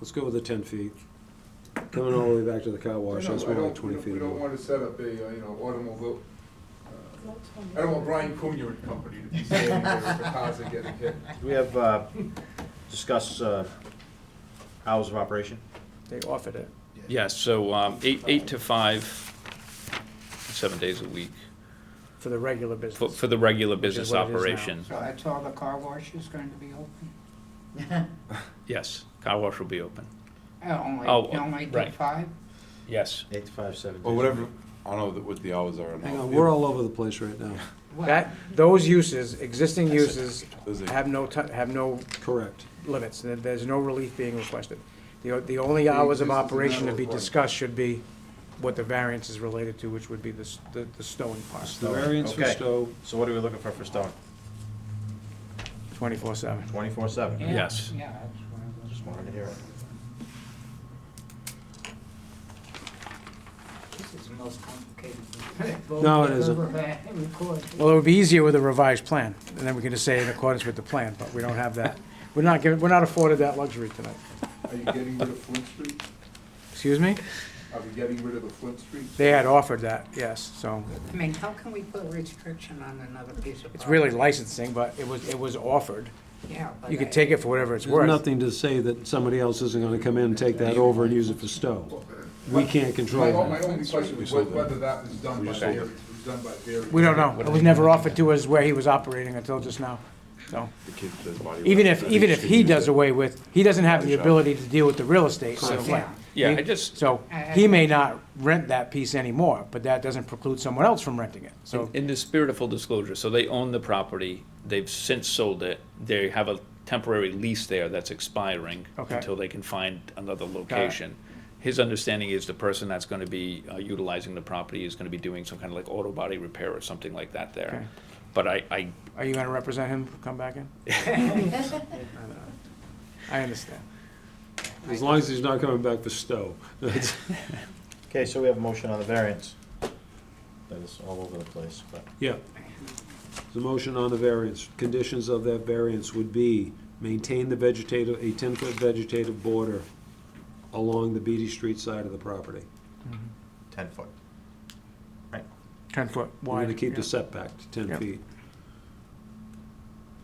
Let's go with the ten feet. Coming all the way back to the car wash, No, that's I more don't- like twenty we don't- feet. We don't away. want to set up a, uh, you know, automobile, uh, I don't want Brian Cunha and company to be standing there if the cars are getting hit. We have, uh, discuss, uh, hours of operation. They offered it. Yes, so um, eight, eight to five, seven days a week, For the regular for, business. for the regular Which is business what it is now. operation. So that's all the car wash is going to be open? Yes, car wash will be open. Uh, Only, Oh, only till right. five? Yes. Eight to five, seven days. Or whatever, I don't know that what the hours are. in Hang all on, the- we're all over the place right now. Well, That, those uses, existing uses Those are- have no, ti- have no Correct. limits. There- There's no relief being requested. The, o- the only hours of existence is operation to be not required. discussed should be what the variance is related to, which would be the, s- the the stowing part, The variance for Okay. Stowe, So what are we looking for for stone? twenty-four seven. Twenty-four yeah, seven? Yes. Yeah, that's one of those. Just wanted to hear it. This is the most complicated vote No, it I've isn't. ever had recorded. Well, it would be easier with a revised plan, and then we can just say in accordance with the plan, but we don't have that. We're not given, we're not afforded that luxury tonight. Are you getting rid of Flint Street? Excuse me? Are we getting rid of the Flint Street? They had offered that, yes, so. I mean, how can we put a restriction on another piece of property? It's really licensing, but it was, it was offered. Yeah. but You I- could take it for whatever it's there's worth. nothing to say that somebody else isn't gonna come in and take that over and use it for Stowe. We can't My, control my that. only question was sold whe- them. whether that was done by, just sold Barry- was done by Barry. We don't know. It was never offered to us where he was operating until just now. So The kid does body work. even if, I think even you if should he use does it. away with, he doesn't have the Shop. ability to deal with the real estate. so- Yeah. Yeah, I just, So he may not rent that piece anymore, but that doesn't preclude someone else from renting it. So in- in the spirit of full disclosure, so they own the property, they've since sold it, they have a temporary lease there that's expiring Okay. until they can find another location. His understanding is the person that's gonna be uh, utilizing the property is gonna be doing some kind of like auto body repair or something like that Okay. there. But I, I are you gonna represent him, come back in? I understand. As long as he's not coming back for Stowe. That's- Okay, so we have a motion on the variance. That is all over the place, but Yeah. The motion on the variance, conditions of that variance would be maintain the vegetative, a ten-foot vegetative border along the Beatty Street side of the property. ten foot. Ten foot We're wide. gonna keep yeah. the setback to ten Yeah. feet.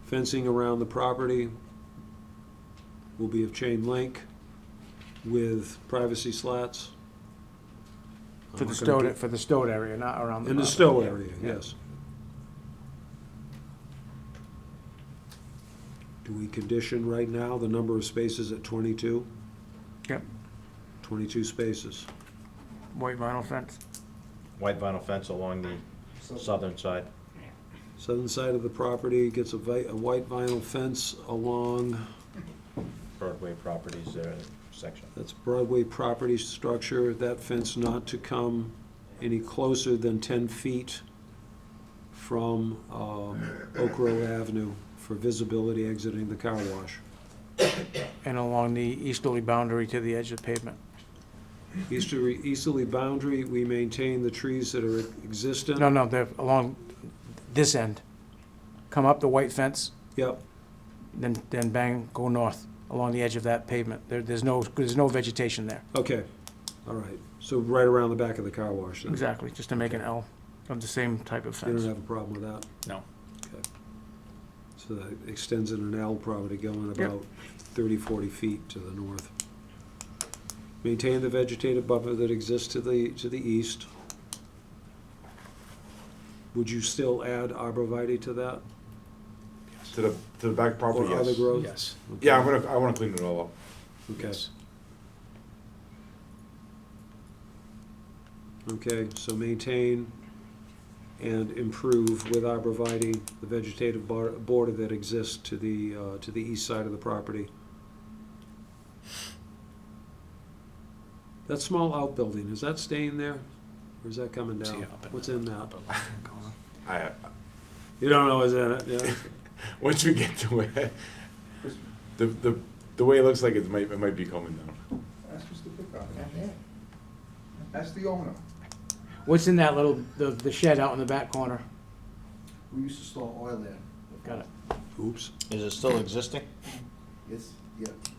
Fencing around the property will be of chain link with privacy slats. I'm For the not gonna stowed, do- for the stowed area, not around the. In the property. stow Yeah. area, yes. Do we condition right now the number of spaces at twenty-two? Yep, Twenty-two spaces. white vinyl fence. White vinyl fence along the southern side. Southern side of the property gets a vi- a white vinyl fence along Broadway properties there, section. That's Broadway property structure, that fence not to come any closer than ten feet from um, Oak Grove Avenue for visibility exiting the car wash. and along the easterly boundary to the edge of pavement. Easterly, easterly boundary, we maintain the trees that are existent. No, no, they're along this end. Come up the white fence, Yep, then, then bang, go north along the edge of that pavement. There, there's no, there's no vegetation there. okay, all right. So right around the back of the car wash then. Exactly, just to make an L of the same type of You don't fence. have a problem with that? No. Okay. So that extends in an L probably going Yep. about 30, 40 feet to the north. Maintain the vegetative buffer that exists to the, to the east. Would you still add arborvitae to that? To the, to the back property, Or other yes. growth? Yes. Okay. Yeah, I'm gonna, I wanna clean it all up. Okay. Okay, so maintain and improve with arborvitae, the vegetative bar- border that exists to the, uh, to the east side of the property. That small outbuilding, is that staying there? Or is that coming down? See, up in What's in that? I, You don't know what's in it, yeah? once we get to it, the, the, the way it looks like it might, it might be coming down. That's Mr. Pickup. That's the owner. What's in that little, the, the shed out in the back corner? We used to store oil there. Got it. Oops. Is it still existing? Yes, yeah.